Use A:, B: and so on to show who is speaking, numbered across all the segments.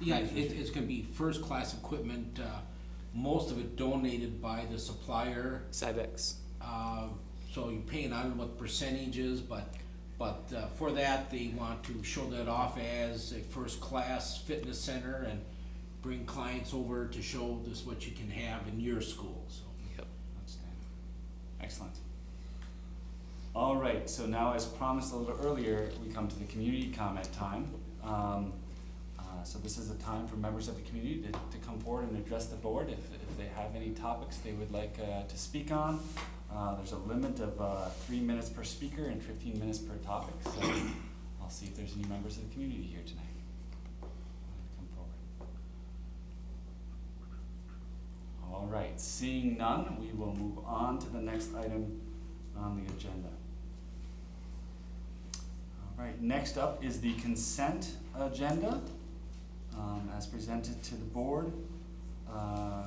A: Yeah, it, it's gonna be first-class equipment, uh, most of it donated by the supplier.
B: Cybex.
A: Uh, so you pay, and I don't know what the percentage is, but, but uh, for that, they want to show that off as a first-class fitness center and bring clients over to show this what you can have in your school, so.
B: Yep.
C: Outstanding. Excellent. All right, so now as promised a little earlier, we come to the community comment time. Um, uh, so this is a time for members of the community to, to come forward and address the board if, if they have any topics they would like, uh, to speak on. Uh, there's a limit of, uh, three minutes per speaker and fifteen minutes per topic, so I'll see if there's any members of the community here tonight. Come forward. All right, seeing none, we will move on to the next item on the agenda. All right, next up is the consent agenda, um, as presented to the board. Uh,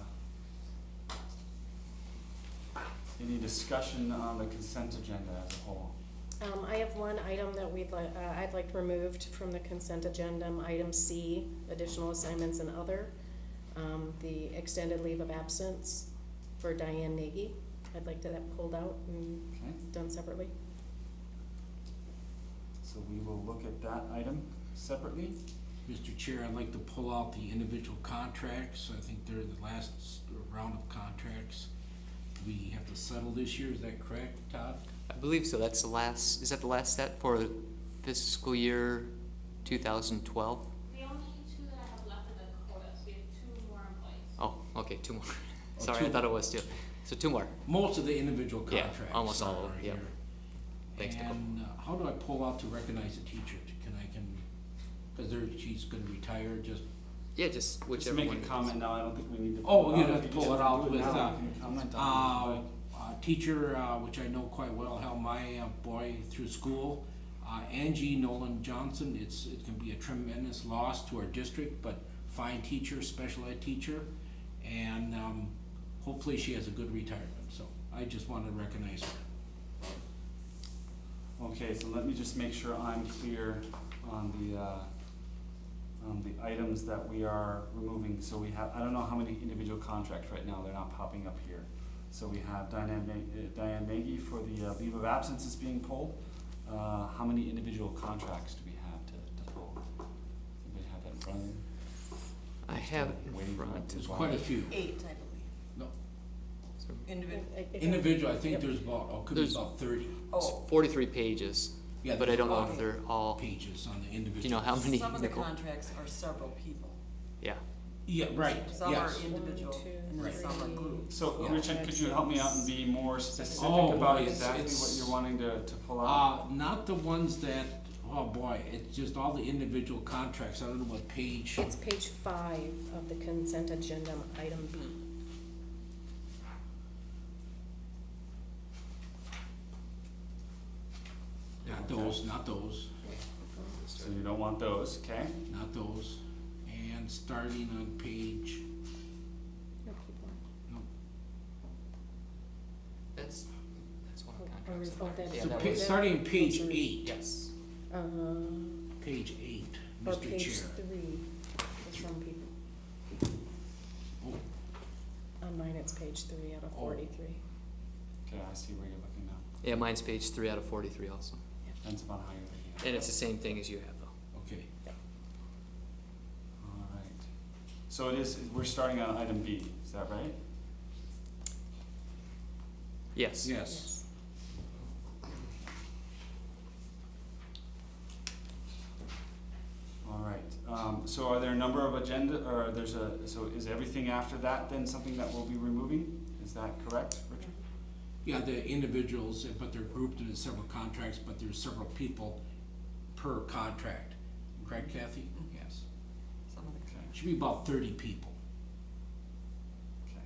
C: Any discussion on the consent agenda as a whole?
D: Um, I have one item that we'd like, uh, I'd like removed from the consent agenda, item C, additional assignments and other. Um, the extended leave of absence for Diane Nagy, I'd like to that pulled out and
C: Okay,
D: done separately.
C: so we will look at that item separately.
A: Mr. Chair, I'd like to pull out the individual contracts, I think they're the last s- round of contracts we have to settle this year, is that correct, Todd?
B: I believe so. That's the last, is that the last set for fiscal year 2012?
E: The only two that I have left are the quotas, we have two more in place.
B: Oh, okay, two more.
C: Oh,
B: Sorry,
C: two
B: I thought it was two. So two more.
A: Most of the individual
B: Yeah,
A: contracts.
B: almost all of
A: are
B: them, yep.
A: here.
B: Thanks, Nicole.
A: And uh, how do I pull out to recognize a teacher? Can I can, because there, she's gonna retire, just,
B: Yeah, just
C: Just
B: whichever
C: make
B: one.
C: a
B: it is.
C: comment now, I don't think we need to.
A: Oh,
C: pull it
A: you'd
C: out.
A: have
C: If
A: to
C: you
A: pull
C: just
A: it out
C: do
A: with,
C: now,
A: uh,
C: you can comment on it.
A: uh, uh, teacher, uh, which I know quite well, helped my uh, boy through school. Uh, Angie Nolan Johnson, it's, it can be a tremendous loss to our district, but fine teacher, special ed teacher. And, um, hopefully she has a good retirement, so I just wanna recognize her.
C: Okay, so let me just make sure I'm clear on the, uh, on the items that we are removing. So we have, I don't know how many individual contracts right now, they're not popping up here. So we have Diane Ma- uh, Diane Maggie for the uh, leave of absence is being pulled. Uh, how many individual contracts do we have to, to pull? Does anybody have that in front of them?
B: I have it
C: Waiting
B: in
C: for
B: front.
C: it.
A: There's quite a few.
F: Eight, I believe,
A: No,
F: individual.
D: I- I think I-
A: individual, I think
D: Yep.
A: there's about, oh, could be
B: There's-
A: about thirty
B: It's
F: Oh,
B: 43 pages,
A: Yeah,
B: but I don't know if
F: okay.
B: they're all.
A: pages on the
B: Do
A: individual.
B: you know how many,
F: some of the
B: Nicole?
F: contracts are several people.
B: Yeah.
A: Yeah, right,
F: Some are
A: yes.
F: individual,
D: two,
F: and then
A: three.
F: some are groups.
C: So
A: Yeah.
C: Richard, could you help me out and be more
A: Oh,
C: specific about
A: boy, it's-
C: exactly what
A: it's-
C: you're wanting to, to pull out?
A: Uh, not the ones that, oh boy, it's just all the individual contracts, I don't know what page.
D: It's page five of the consent agenda, item B.
A: Not those, not those,
C: Uh, So you don't want those, okay?
A: not those. And starting on page,
D: No, keep going.
A: no,
B: That's, that's one
D: Oh,
B: of
D: oh,
B: the contracts.
D: oh,
B: that-
D: that-
B: yeah,
A: so
B: that
A: pa-
B: was-
D: that-
A: starting on page
D: Those are-
A: eight,
B: Yes.
D: Uh,
A: page eight,
D: or
A: Mr.
D: page
A: Chair.
D: three for some people.
A: Oh,
D: On mine, it's page three out of
A: Oh.
D: forty-three.
C: Okay, I see where you're looking now.
B: Yeah, mine's page three out of 43 also.
C: Depends upon how you're looking at it.
B: And it's the same thing as you have, though.
A: Okay,
C: All right. So it is, we're starting on item B, is that right?
B: Yes.
A: yes.
C: All right. Um, so are there a number of agenda, or there's a, so is everything after that then something that we'll be removing? Is that correct, Richard?
A: Yeah, the individuals, but they're grouped into several contracts, but there's several people per contract. Correct,
D: Mm-hmm.
A: Kathy? Yes.
F: Some of the
C: Okay,
A: Should be about thirty people.
C: okay.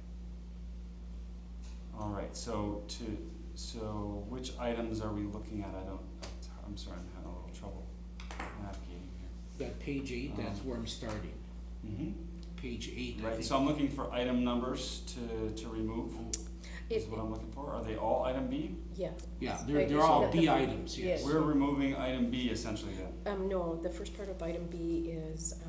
C: All right, so to, so which items are we looking at? I don't, I'm sorry, I'm having a little trouble navigating
A: That page eight, that's
D: Uh-huh.
A: where I'm starting.
C: here. Mm-hmm.
A: Page eight, I
C: Right,
A: think.
C: so I'm looking for item numbers to, to remove, is
D: It,
C: what I'm looking for. Are they all item B?
D: yeah,
A: Yeah, they're,
D: Right,
A: they're
D: so
A: all
D: that the-
A: B items, yes.
D: yes.
C: We're removing item B essentially then.
D: um, no, the first part of item B is,